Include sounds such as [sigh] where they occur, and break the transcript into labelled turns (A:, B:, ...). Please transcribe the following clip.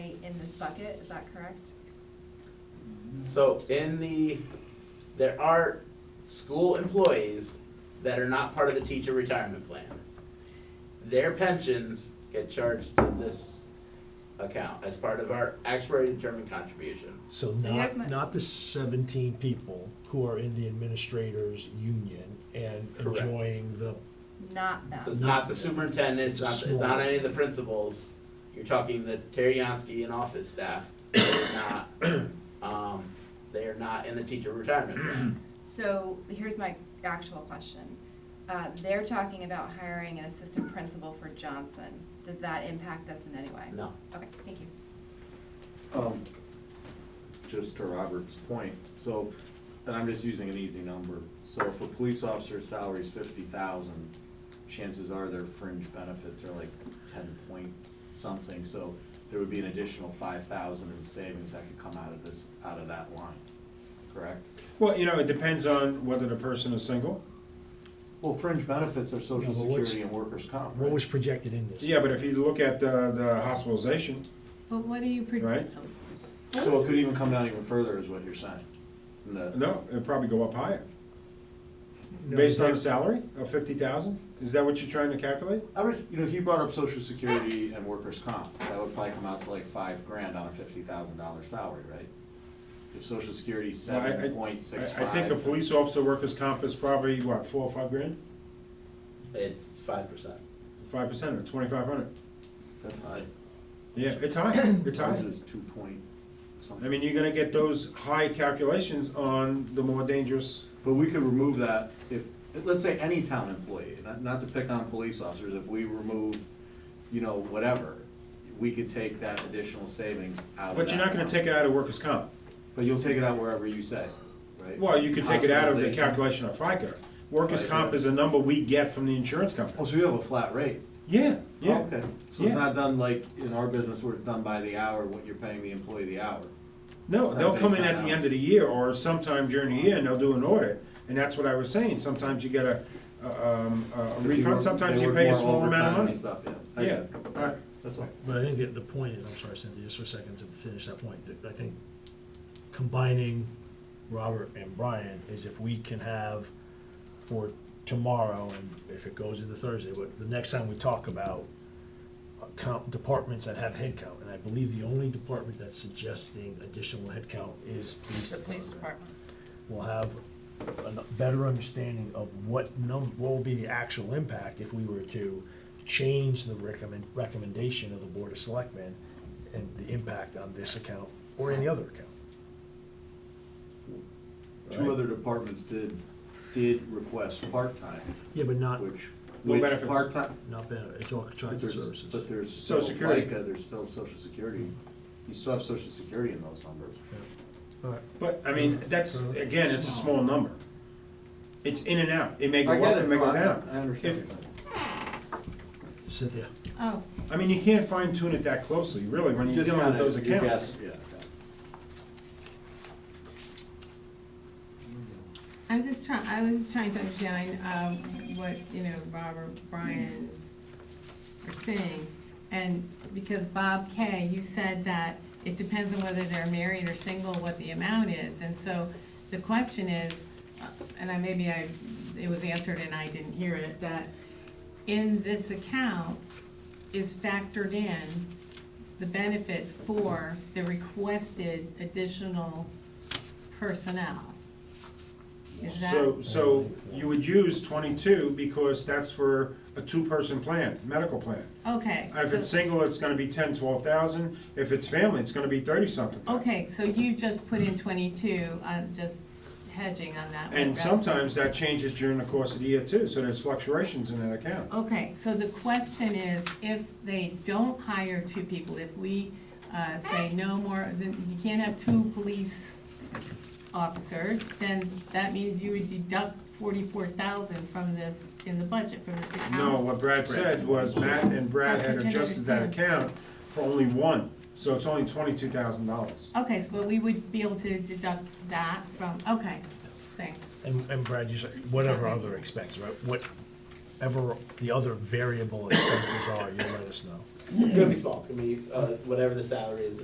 A: bucket, is that correct?
B: So in the, there are school employees that are not part of the teacher retirement plan. Their pensions get charged to this account as part of our actuary determined contribution.
C: So
A: So here's
C: not,
A: my-
C: not the seventeen people who are in the administrators' union and
B: Correct.
C: enjoying the,
A: Not
B: So it's
A: them.
B: not the superintendent, it's not, it's
C: Small.
B: not any of the principals. You're talking the Teriyaki and office staff, They're not, um, they are not in the teacher retirement plan.
A: So here's my actual question. Uh, they're talking about hiring an assistant principal for Johnson. Does that impact us in any way?
B: No.
A: Okay, thank you.
D: Um, just to Robert's point, so, and I'm just using an easy number, so if a police officer's salary is fifty thousand, chances are their fringe benefits are like ten point something, so there would be an additional five thousand in savings that could come out of this, out of that line, correct?
E: Well, you know, it depends on whether the person is single.
D: Well, fringe benefits are social
C: No, but what's-
D: security and workers' comp,
C: what was
D: right?
C: projected in this.
E: Yeah, but if you look at the, the hospitalization,
F: But what do you
E: Right.
F: predict?
D: So it could even come down even further is what you're saying, in the,
E: no, it'd probably go up higher.
C: No,
E: Based on a
C: they-
E: salary of fifty thousand? Is that what you're trying to calculate?
D: I was, you know, he brought up social security and workers' comp, that would probably come out to like five grand on a fifty thousand dollar salary, right? If social security's
E: Well, I- I-
D: seven point six
E: I-
D: five.
E: I think a police officer workers' comp is probably, what, four or five grand?
B: It's five percent.
E: Five percent of twenty-five hundred.
D: That's high,
E: Yeah,
D: [coughs]
E: it's high, it's
D: ours
E: high.
D: is two point
E: I
D: something,
E: mean, you're gonna get those high calculations on the more dangerous,
D: but we could remove that if, let's say any town employee, not, not to pick on police officers, if we removed, you know, whatever, we could take that additional savings out of
E: but you're not
D: that
E: gonna
D: line.
E: take it out of workers' comp.
D: But you'll take it out wherever you say, right?
E: Well, you could take it out of the
D: Hospitalization.
E: calculation of FICA. Workers'
D: Right,
E: comp
D: yeah.
E: is a number we get from the insurance company.
D: Oh, so you have a flat rate?
E: Yeah, yeah.
D: Oh, Okay, so it's
E: Yeah.
D: not done like in our business where it's done by the hour, what you're paying the employee the hour.
E: No,
D: It's
E: they'll
D: not
E: come in
D: based
E: at
D: on
E: the
D: hours.
E: end of the year or sometime during the year and they'll do an audit. And that's what I was saying, sometimes you get a, a, um, a
D: Because you work-
E: refund, sometimes
D: they
E: you
D: work
E: pay a
D: more
E: small amount
D: overtime and
E: of money.
D: Stuff, yeah. I
E: Yeah.
D: get it. Alright, that's all.
C: But I think that the point is, I'm sorry, Cynthia, just for a second to finish that point, that I think combining Robert and Brian is if we can have for tomorrow, and if it goes into Thursday, but the next time we talk about uh, comp, departments that have headcount, and I believe the only department that's suggesting additional headcount is police
F: The police department.
C: we'll have a better understanding of what num, what will be the actual impact if we were to change the recommend, recommendation of the Board of Selectmen and the impact on this account or any other account.
D: Two other departments did, did request part-time,
C: Yeah, but not,
D: which,
E: No
D: which
E: benefits.
D: part-time,
C: not better, it's all
D: but
C: contracted
D: there's,
C: services.
D: but there's still
E: Social Security.
D: FICA, there's still social security. You still have social security in those numbers.
C: All right.
E: But, I
D: Mm-hmm.
E: mean, that's, again, it's a small number. It's in and out, it may go
D: I
E: up,
D: get
E: it
D: it,
E: may
D: No,
E: go
D: I I
E: down.
D: understand.
E: If-
D: what you're saying.
C: Cynthia,
A: Oh,
E: I mean, you can't fine tune it that closely, really, when you're
D: Just
E: dealing with
D: kinda-
E: those
D: you
E: accounts.
D: guess- Yeah. okay.
F: I'm just trying, I was just trying to understand, uh, what, you know, Robert, Brian are saying. And because Bob Kay, you said that it depends on whether they're married or single, what the amount is. And so the question is, uh, and I, maybe I, it was answered and I didn't hear it, that in this account is factored in the benefits for the requested additional personnel. Is that?
E: So, so you would use twenty-two because that's for a two-person plan, medical plan.
F: Okay,
E: If it's
F: so,
E: single, it's gonna be ten, twelve thousand. If it's family, it's gonna be thirty-something.
F: okay, so you just put in twenty-two, uh, just hedging on that one.
E: And
F: right?
E: sometimes that changes during the course of the year too, so there's fluctuations in that account.
F: Okay, so the question is, if they don't hire two people, if we, uh, say no more, then you can't have two police officers, then that means you would deduct forty-four thousand from this, in the budget, from this account.
E: No, what Brad said was Matt and Brad
F: That's
E: had
F: what I didn't
E: adjusted that
F: understand.
E: account for only one, so it's only twenty-two thousand dollars.
F: Okay, so we would be able to deduct that from, okay, thanks.
C: and, and Brad, you said, whatever other expense, right, whatever the other variable expenses are, you let us know.
B: It's gonna be small, it's gonna be, uh, whatever the salary is